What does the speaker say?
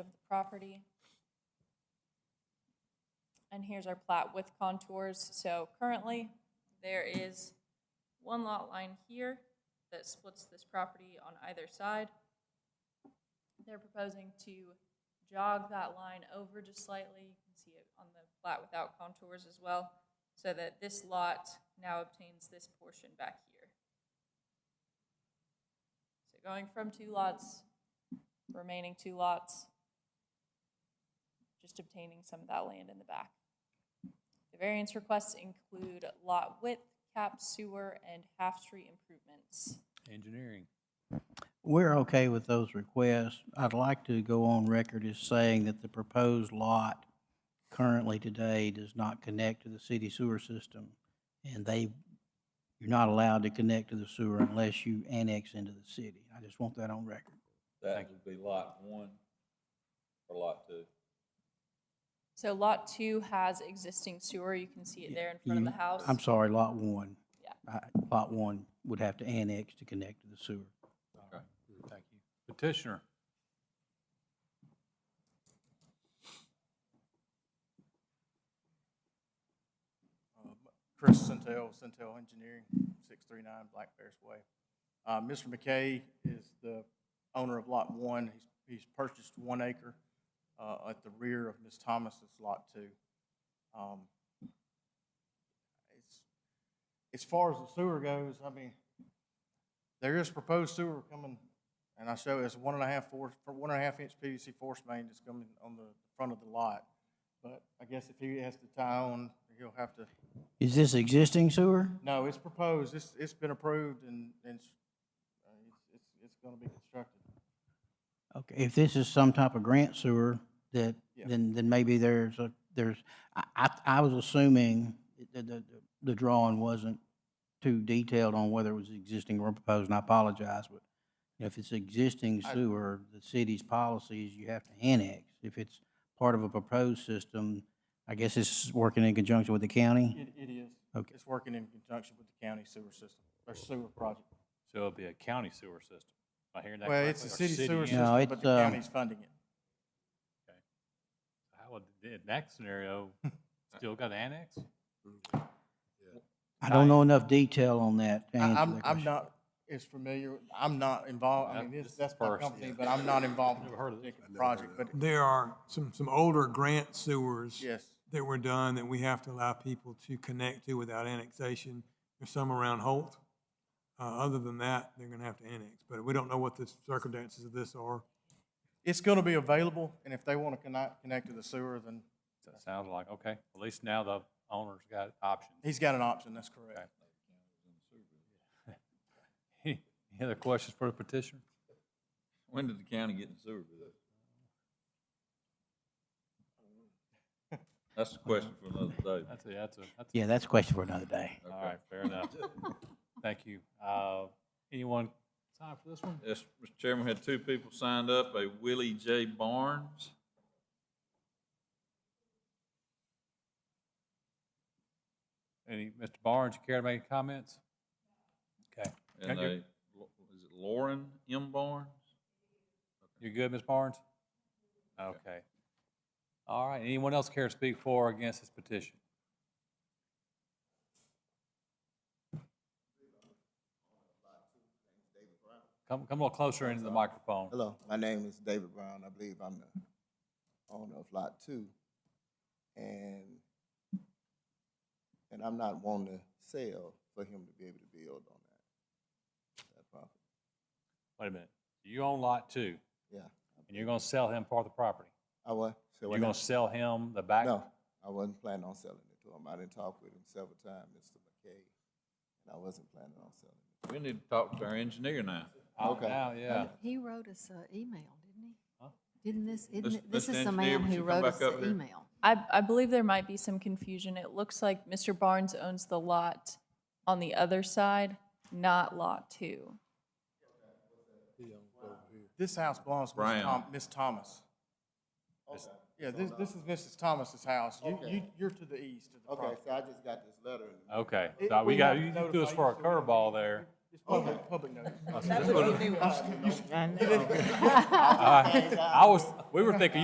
of the property. And here's our plat with contours. So currently, there is one lot line here that splits this property on either side. They're proposing to jog that line over just slightly. You can see it on the plat without contours as well, so that this lot now obtains this portion back here. So going from two lots, remaining two lots, just obtaining some of that land in the back. The variance requests include lot width, cap sewer, and half-street improvements. Engineering. We're okay with those requests. I'd like to go on record as saying that the proposed lot currently today does not connect to the city sewer system. And they, you're not allowed to connect to the sewer unless you annex into the city. I just want that on record. That would be lot one or lot two. So lot two has existing sewer, you can see it there in front of You- the house. I'm sorry, lot one. Yeah. I- Lot one would have to annex to connect to the sewer. Okay, thank you. Mm-hmm. Petitioner. Chris Centel, Centel Engineering, 639 Black Bears Way. Uh, Mr. McKay is the owner of Lot 1. He's- He's purchased one acre uh, at the rear of Ms. Thomas's Lot 2. Um, it's- As far as the sewer goes, I mean, there is proposed sewer coming, and I show it's one and a half force, for one and a half inch PVC force main that's coming on the front of the lot. But I guess if he has to tie on, he'll have to Is this existing sewer? no, it's proposed, it's, it's been approved and, and it's, uh, it's- it's, it's gonna be constructed. Okay, if this is some type of grant sewer, that, Yeah. then, then maybe there's a, there's, I, I, I was assuming that the, the drawing wasn't too detailed on whether it was existing or proposed, and I apologize, but if it's existing I- sewer, the city's policy is you have to annex. If it's part of a proposed system, I guess it's working in conjunction with the county? It, it is. Okay. It's working in conjunction with the county sewer system, or sewer project. So it'll be a county sewer system. Am I hearing that Well, correctly? it's a Or city sewer and- No, system, it's, but the uh, county's funding it. How would, in that scenario, still got annexed? I don't know enough detail on that to I- answer that I'm, I'm question. not as familiar, I'm not involved, I That- mean, this this, is that's my first, company, but I'm not involved in Never heard of the project, but There are some, some older grant sewers yes. that were done that we have to allow people to connect to without annexation. There's some around Holt. Uh, other than that, they're gonna have to annex, but we don't know what the circumstances of this are. It's gonna be available, and if they wanna connect, connect to the sewer, then That sounds like, okay, at least now the owner's got options. he's got an option, that's correct. Any other questions for the petitioner? When did the county get in sewer for this? That's the question for another day. That's a, that's a, that's a Yeah, that's a question for another day. All right, fair enough. Thank you. Uh, Anyone sign for this one? Yes, Mr. Chairman, we had two people signed up, a Willie J. Barnes. Any, Mr. Barnes, you care to make any comments? Okay. And Okay, a, you're- is it Lauren M. Barnes? You're good, Ms. Barnes? Okay. All right, anyone else care to speak for or against this petition? Come, come a little closer into the microphone. Hello, my name is David Brown. I believe I'm the owner of Lot Two. And, and I'm not wanting to sell for him to be able to build on that. that property. Wait a minute. You own lot two, Yeah, and you're gonna sell him part of the property. I was. You're gonna sell him the back? No, I wasn't planning on selling it to him. I didn't talk with him several times, Mr. McKay. And I wasn't planning on selling it. We need to talk to our engineer now. Out Okay. Oh, now, yeah. He wrote us an email, didn't he? Huh? Didn't this, isn't Mis- it, this Mr. is the Engineer, would man who you come wrote back us up an here? email. I, I believe there might be some confusion. It looks like Mr. Barnes owns the lot on the other side, not lot two. This house belongs to Miss Brown. Tom, Miss Thomas. Yeah, this, this is Mrs. Thomas's house. You, you, you're to the east of the Okay, property. so I just got this letter in the mail. Okay, It- so we got, have to you threw us notify for a you, so we- curveball there. It's public, public notice. I I was, We were thinking